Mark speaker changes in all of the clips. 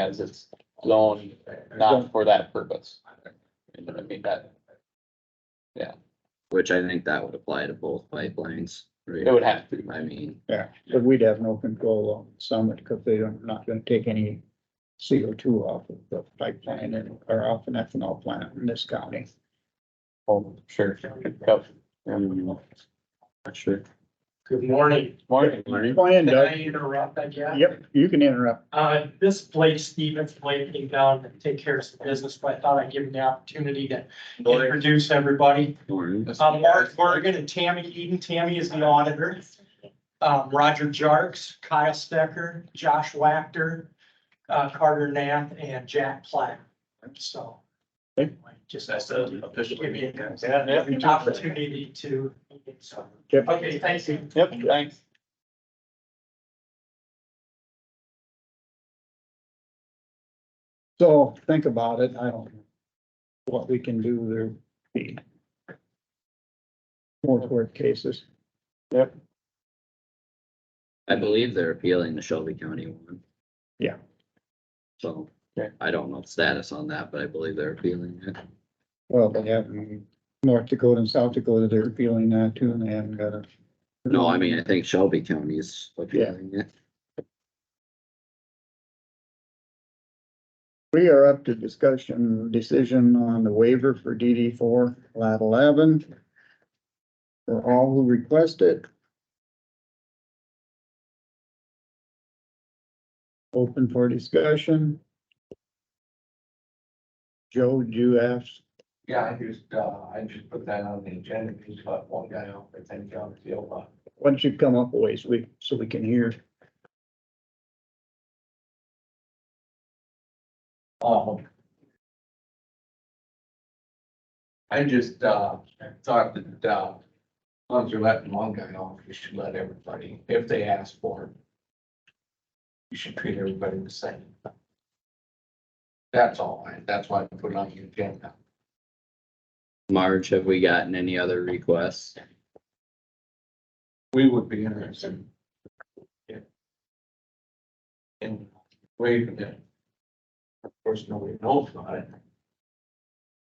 Speaker 1: as it's zoned not for that purpose. You know what I mean, that,
Speaker 2: Which I think that would apply to both pipelines. right?
Speaker 1: it would have to,
Speaker 2: I mean,
Speaker 3: Yeah, but we'd have no control on the summit because they're not gonna take any CO two off of the pipeline and, or off an ethanol plant in this county.
Speaker 1: oh, sure. Yep.
Speaker 2: I'm not sure.
Speaker 4: Good morning.
Speaker 1: Morning.
Speaker 3: Plan,
Speaker 4: Can I
Speaker 3: Doug.
Speaker 4: interrupt, I guess?
Speaker 3: Yep, you can interrupt.
Speaker 4: Uh, this Blake Stevens, Blake came down to take care of some business, but I thought I'd give him the opportunity to introduce everybody.
Speaker 2: Lauren,
Speaker 4: Uh, Mark Morgan and Tammy Eden. Tammy is the auditor. Um, Roger Jarks, Kyle Stecker, Josh Wachter, uh, Carter Nath and Jack Platt. So.
Speaker 3: Okay.
Speaker 4: Just.
Speaker 5: That's the official
Speaker 4: Give you an
Speaker 1: Yeah,
Speaker 4: an opportunity to. so.
Speaker 3: Yep.
Speaker 4: Okay, thank you.
Speaker 1: Yep, thanks.
Speaker 3: So think about it. I don't know what we can do there. be More court cases.
Speaker 2: I believe they're appealing the Shelby County one.
Speaker 3: Yeah.
Speaker 2: So,
Speaker 1: Okay.
Speaker 2: I don't know the status on that, but I believe they're appealing it.
Speaker 3: Well, they have in North Dakota and South Dakota, they're appealing that too, and they haven't got a.
Speaker 2: No, I mean, I think Shelby County is appealing it.
Speaker 3: We are up to discussion, decision on the waiver for DD four, lat eleven. For all who request it. Open for discussion. Joe, do you have
Speaker 5: Yeah, I just, uh, I just put that on the agenda, because got one guy off, but then John Field.
Speaker 3: why don't you come up a ways, we, so we can hear?
Speaker 5: Um. I just, uh, thought that, uh, once you're letting one guy off, you should let everybody, if they ask for it. You should treat everybody the same. That's all, I- that's why I put it on the agenda.
Speaker 2: Marge, have we gotten any other requests?
Speaker 5: We would be interested. in- In waiving it. Of course, nobody knows about it.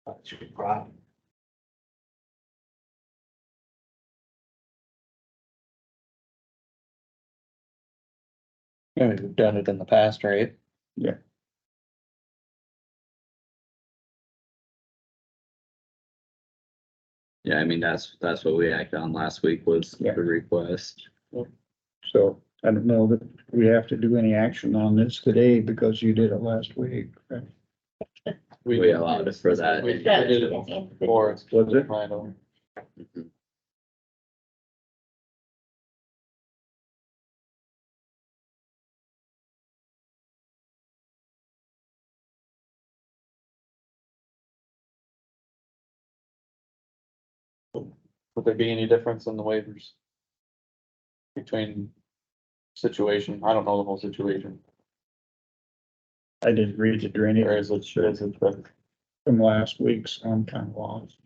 Speaker 5: That's your problem.
Speaker 1: Yeah, we've done it in the past, right?
Speaker 3: Yeah.
Speaker 2: Yeah, I mean, that's, that's what we acted on last week was the
Speaker 3: Yeah.
Speaker 2: request.
Speaker 3: So I don't know that we have to do any action on this today because you did it last week. right?
Speaker 2: We allowed it for that.
Speaker 1: We we did it before.
Speaker 3: Was it?
Speaker 1: I don't- Would there be any difference in the waivers? Between situation, I don't know the whole situation,
Speaker 3: I didn't read the
Speaker 1: or
Speaker 3: drainage
Speaker 1: is it, is it, the-
Speaker 3: from last week, so I'm kind of lost.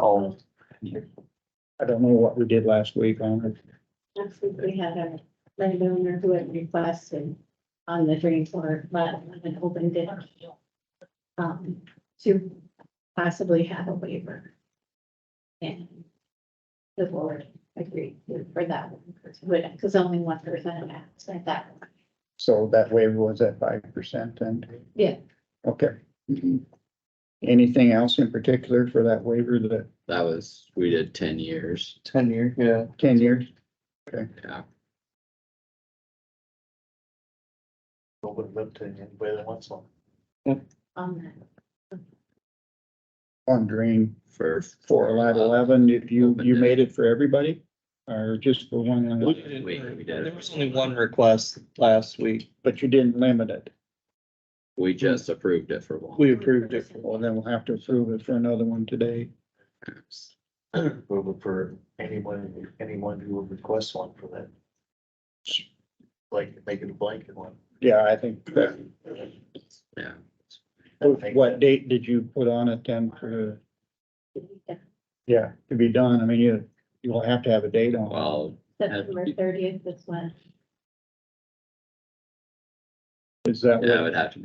Speaker 1: oh,
Speaker 3: I don't know what we did last week on it.
Speaker 6: Last week we had a landowner who had requested on the drain floor, but an open ditch. Um, to possibly have a waiver. And the board agreed for that one person, because only one person asked at that. one.
Speaker 3: So that waiver was at five percent and?
Speaker 6: Yeah.
Speaker 3: Okay. Anything else in particular for that waiver, the
Speaker 2: That was, we did ten years.
Speaker 3: ten year? Yeah. Ten years?
Speaker 2: Yeah.
Speaker 6: On that.
Speaker 3: On drain
Speaker 2: For.
Speaker 3: for lat eleven, if you,
Speaker 2: Open
Speaker 3: you
Speaker 2: ditch.
Speaker 3: made it for everybody? Or just for one,
Speaker 2: We,
Speaker 3: lat-
Speaker 2: we did.
Speaker 7: There
Speaker 2: it.
Speaker 7: was only one request last week.
Speaker 3: but you didn't limit it?
Speaker 2: We just approved it for one.
Speaker 3: We approved it. Well, then we'll have to approve it for another one today.
Speaker 5: Over for anyone, anyone who would request one for that. Like, make it a blanket one.
Speaker 3: Yeah, I think that,
Speaker 2: Yeah.
Speaker 3: what date did you put on it then for, yeah, to be done? I mean, you, you'll have to have a date on it.
Speaker 2: Well,
Speaker 6: September thirtieth is when
Speaker 3: Is that
Speaker 2: yeah, it
Speaker 3: what?
Speaker 2: would have to be